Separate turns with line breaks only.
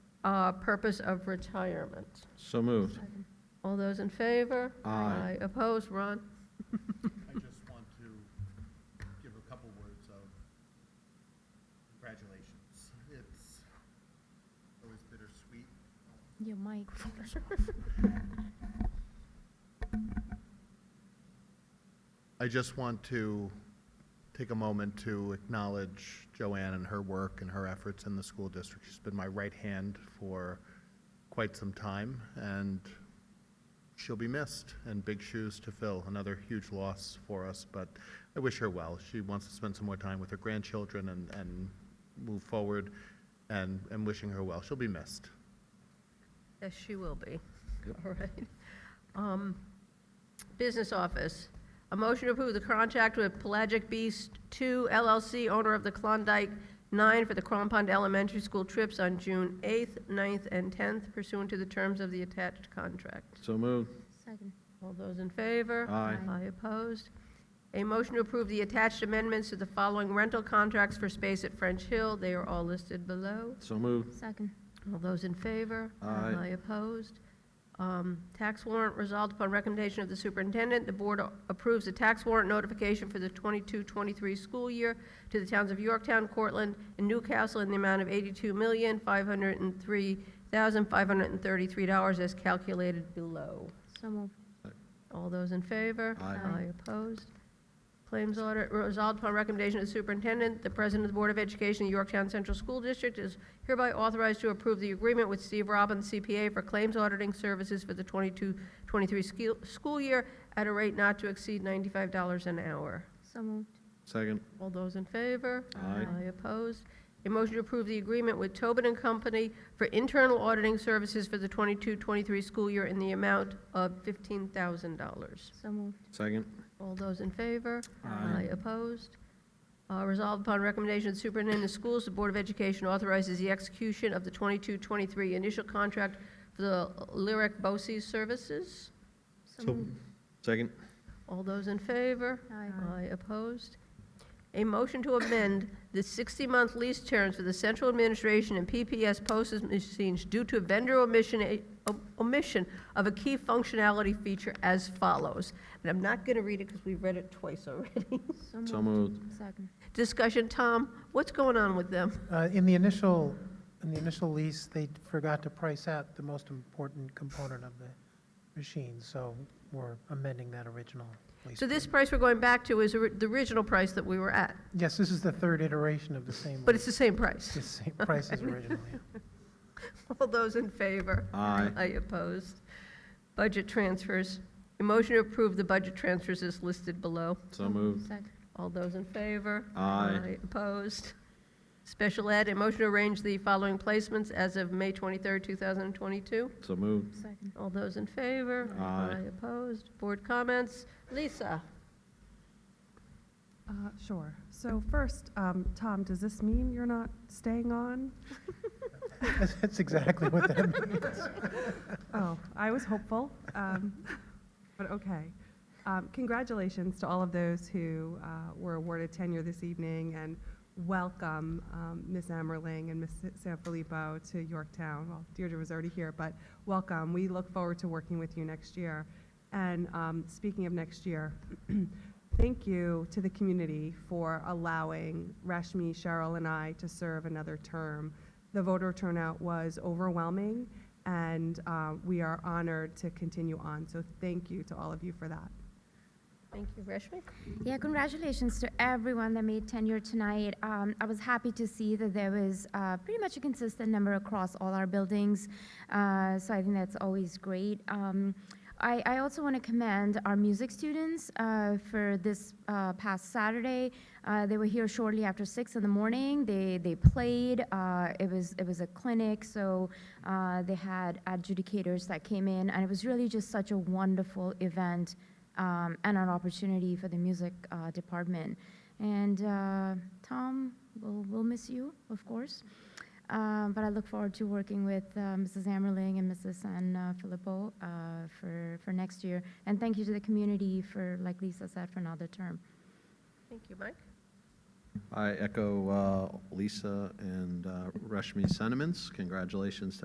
uh, purpose of retirement.
So moved.
All those in favor?
Aye.
Opposed, Ron?
I just want to give a couple words of congratulations. It's always bittersweet.
Your mic.
I just want to take a moment to acknowledge Joanne and her work and her efforts in the school district. She's been my right hand for quite some time, and she'll be missed and big shoes to fill. Another huge loss for us, but I wish her well. She wants to spend some more time with her grandchildren and, and move forward, and, and wishing her well. She'll be missed.
Yes, she will be. All right. Um, Business office. A motion to approve the contract with Pelagic Beast Two LLC, owner of the Klondike Nine for the Crampond Elementary School trips on June 8th, 9th, and 10th pursuant to the terms of the attached contract.
So moved.
Second.
All those in favor?
Aye.
Aye opposed. A motion to approve the attached amendments to the following rental contracts for space at French Hill. They are all listed below.
So moved.
Second.
All those in favor?
Aye.
opposed? Um, Tax warrant resolved upon recommendation of the superintendent, the board approves the tax warrant notification for the 22-23 school year to the towns of Yorktown, Cortland, and Newcastle in the amount of $82,503,533 as calculated below.
So moved.
All those in favor?
Aye.
Aye.
opposed. Claims audit, resolved upon recommendation of the superintendent, the president of the Board of Education of Yorktown Central School District is hereby authorized to approve the agreement with Steve Robbins CPA for claims auditing services for the 22-23 skill- school year at a rate not to exceed $95 an hour.
So moved.
Second.
All those in favor?
Aye.
opposed. A motion to approve the agreement with Tobin and Company for internal auditing services for the 22-23 school year in the amount of $15,000.
So moved.
Second.
All those in favor?
Aye.
Opposed? Uh, Resolved upon recommendation of the superintendent of schools, the Board of Education authorizes the execution of the 22-23 initial contract for the Lyric BOCES services.
So moved.
Second.
All those in favor?
Aye.
Aye, opposed. A motion to amend the 60-month lease terms for the central administration and PPS postage machines due to vendor omission, eh, omission of a key functionality feature as follows. And I'm not going to read it because we've read it twice already.
So moved.
Second.
Discussion, Tom, what's going on with them?
Uh, In the initial, in the initial lease, they forgot to price out the most important component of the machine, so we're amending that original lease.
So this price we're going back to is the original price that we were at,
Yes, this is the third iteration of the same.
but it's
lease.
the same price.
It's the same price as originally.
All those in favor?
Aye.
I opposed. Budget transfers. A motion to approve the budget transfers is listed below.
So moved.
Second.
All those in favor?
Aye.
Opposed. Special ed, a motion to arrange the following placements as of May 23rd, 2022.
So moved.
Second.
All those in favor?
Aye.
Opposed. Board comments? Lisa?
Uh, Sure. So first, um, Tom, does this mean you're not staying on?
That's that's exactly what that means.
Oh, I was hopeful, um, but okay. Um, Congratulations to all of those who uh, were awarded tenure this evening, and welcome um, Ms. Emmerling and Ms. Sanfilippo to Yorktown. Well, Deirdre was already here, but welcome. We look forward to working with you next year. And um, speaking of next year, thank you to the community for allowing Rashmi, Cheryl, and I to serve another term. The voter turnout was overwhelming, and uh, we are honored to continue on. So thank you to all of you for that.
Thank you, Rashmi.
Yeah, congratulations to everyone that made tenure tonight. Um, I was happy to see that there was uh, pretty much a consistent number across all our buildings, uh, so I think that's always great. Um, I, I also want to commend our music students uh, for this uh, past Saturday. Uh, they were here shortly after six in the morning. They they played. Uh, it was it was a clinic, so uh, they had adjudicators that came in, and it was really just such a wonderful event um, and an opportunity for the music uh, department. And uh, Tom, we'll, we'll miss you, of course. Um, but I look forward to working with uh, Mrs. Ammerling and Mrs. San uh, Filippo uh, for, for next year. And thank you to the community for, like Lisa said, for another term.
Thank you, Mike.
I echo uh, Lisa and uh, Rashmi's sentiments. Congratulations to